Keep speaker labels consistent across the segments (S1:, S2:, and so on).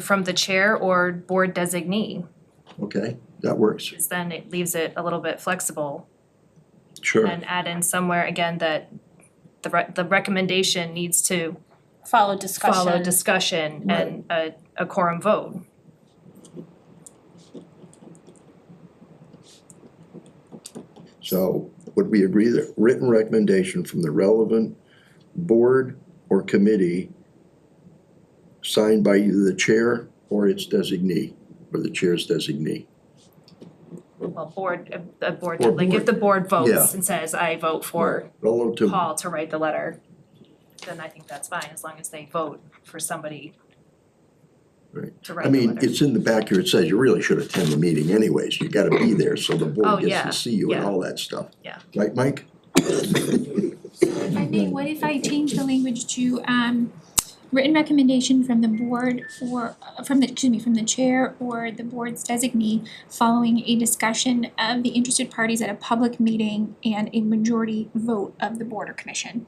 S1: from the chair or board designee,
S2: Okay, that works.
S1: 'cause then it leaves it a little bit flexible.
S2: Sure.
S1: And add in somewhere again that the re- the recommendation needs to
S3: follow discussion.
S1: follow discussion and a a quorum vote.
S2: So would we agree that written recommendation from the relevant board or committee signed by either the chair or its designee, or the chair's designee?
S1: Well, board, a a board,
S2: Or
S1: like if
S2: board.
S1: the board votes
S2: Yeah.
S1: and says, I vote for
S2: Relative to.
S1: Paul to write the letter, then I think that's fine, as long as they vote for somebody
S2: Right.
S1: to
S2: I
S1: write the
S2: mean,
S1: letter.
S2: it's in the back here, it says you really should attend the meeting anyways, you gotta be there, so the
S1: Oh,
S2: board gets
S1: yeah,
S2: to see you and
S1: yeah.
S2: all that stuff.
S1: Yeah.
S2: Right, Mike?
S3: If I may, what if I change the language to um written recommendation from the board or uh, from the, excuse me, from the chair or the board's designee following a discussion of the interested parties at a public meeting and a majority vote of the board or commission.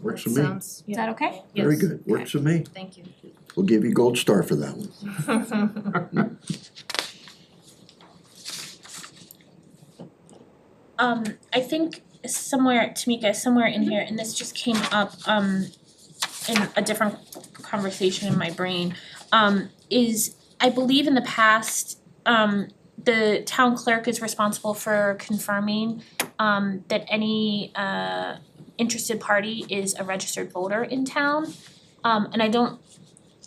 S2: Works for
S1: That
S2: me,
S1: Sounds,
S3: Is
S1: yeah,
S3: that okay?
S2: very
S1: yes,
S2: good, works for me,
S1: thank you.
S2: we'll give you gold star for that one.
S4: um I think somewhere Tamika, somewhere in here, and this just came up um in a different conversation in my brain, um is I believe in the past, um the town clerk is responsible for confirming um that any uh interested party is a registered voter in town. Um and I don't,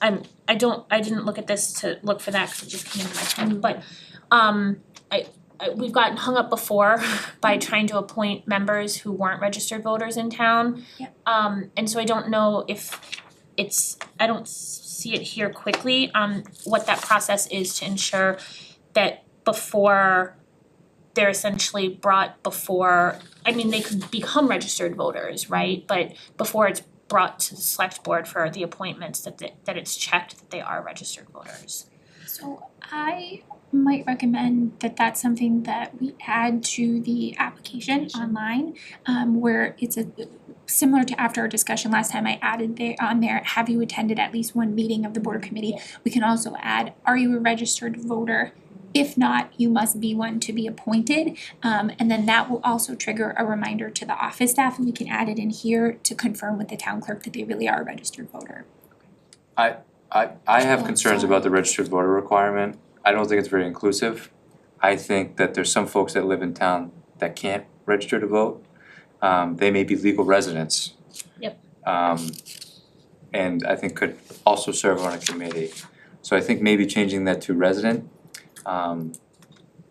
S4: I'm I don't, I didn't look at this to look for that, cause it just came to my head, but um I I we've gotten hung up before by trying to appoint members who weren't registered voters in town.
S3: Yep.
S4: Um and so I don't know if it's, I don't s- see it here quickly, um what that process is to ensure that before they're essentially brought before, I mean, they could become registered voters, right? But before it's brought to the select board for the appointments that that that it's checked that they are registered voters.
S3: So I might recommend that that's something that we add to the application online, um, where it's a, similar to after our discussion last time, I added there, on there, have you attended at least one meeting of the board or committee? We can also add, are you a registered voter? If not, you must be one to be appointed, um, and then that will also trigger a reminder to the office staff, and we can add it in here to confirm with the town clerk that they really are a registered voter.
S5: I I have
S3: Yeah,
S5: concerns
S3: so-
S5: about the registered voter requirement. I don't think it's very inclusive. I think that there's some folks that live in town that can't register to vote. Um they may be legal residents.
S4: Yep.
S5: Um and I think could also serve on a committee. So I think maybe changing that to resident um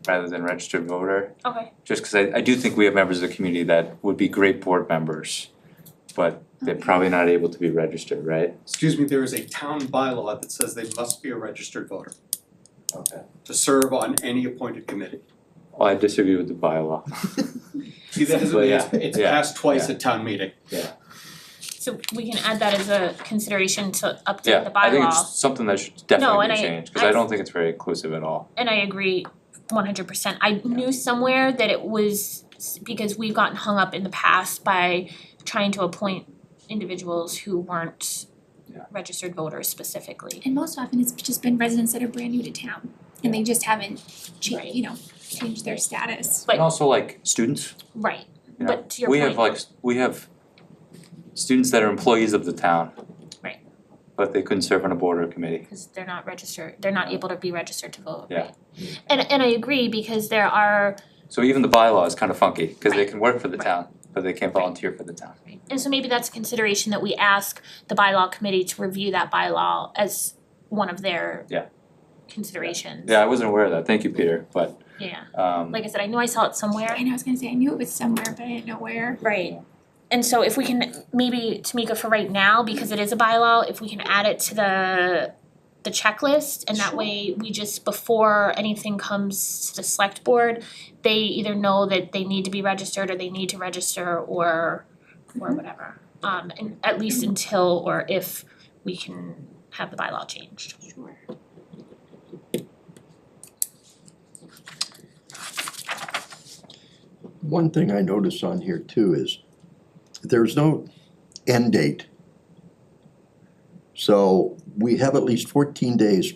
S5: rather than registered voter,
S4: Okay.
S5: just cause I I do think we have members of the community that would be great board members, but they're probably not able to be registered, right?
S6: Excuse me, there is a town bylaw that says they must be a registered voter
S5: Okay.
S6: to serve on any appointed committee.
S5: Well, I disagree with the bylaw.
S6: See, that hasn't
S5: Well,
S6: been,
S5: yeah,
S6: it's- it's
S5: yeah,
S6: passed twice at town meeting.
S4: So we can add that as a consideration to update the bylaw.
S5: Yeah, I think it's something that should definitely
S4: and
S5: be
S4: I-
S5: changed, cause I
S4: I-
S5: don't think it's very inclusive at all.
S4: and I agree one hundred percent. I knew somewhere that it was s- because we've gotten hung up in the past by trying to appoint individuals who weren't
S5: Yeah.
S4: registered voters specifically.
S3: And most often it's just been residents that are brand new to town and they just haven't cha-
S4: Right.
S3: you know, changed their status.
S4: But-
S5: And also like students,
S4: Right,
S5: you know,
S4: but to your
S5: we
S4: point.
S5: have like, s- we have students that are employees of the town.
S4: Right.
S5: But they couldn't serve on a board or a committee.
S4: because they're not registered, they're not able to be registered to vote,
S5: Yeah.
S4: right? And and I agree because there are
S5: So even the bylaw is kind of funky, cause they
S4: Right.
S5: can work for the
S4: Right.
S5: town, but they can't volunteer for the town.
S4: And so maybe that's a consideration that we ask the bylaw committee to review that bylaw as one of their
S5: Yeah.
S4: considerations.
S5: Yeah, I wasn't aware of that, thank you, Peter, but
S4: Yeah,
S5: um
S4: like I said, I knew I saw it somewhere.
S3: And I was gonna say, I knew it was somewhere, but I didn't know where.
S4: Right. And so if we can, maybe Tamika for right now, because it is a bylaw, if we can add it to the the checklist and that
S3: Sure.
S4: way we just before anything comes to the select board, they either know that they need to be registered or they need to register or or whatever. Um and at least until or if we can have the bylaw changed.
S3: Sure.
S2: One thing I notice on here too is there's no end date. So we have at least fourteen days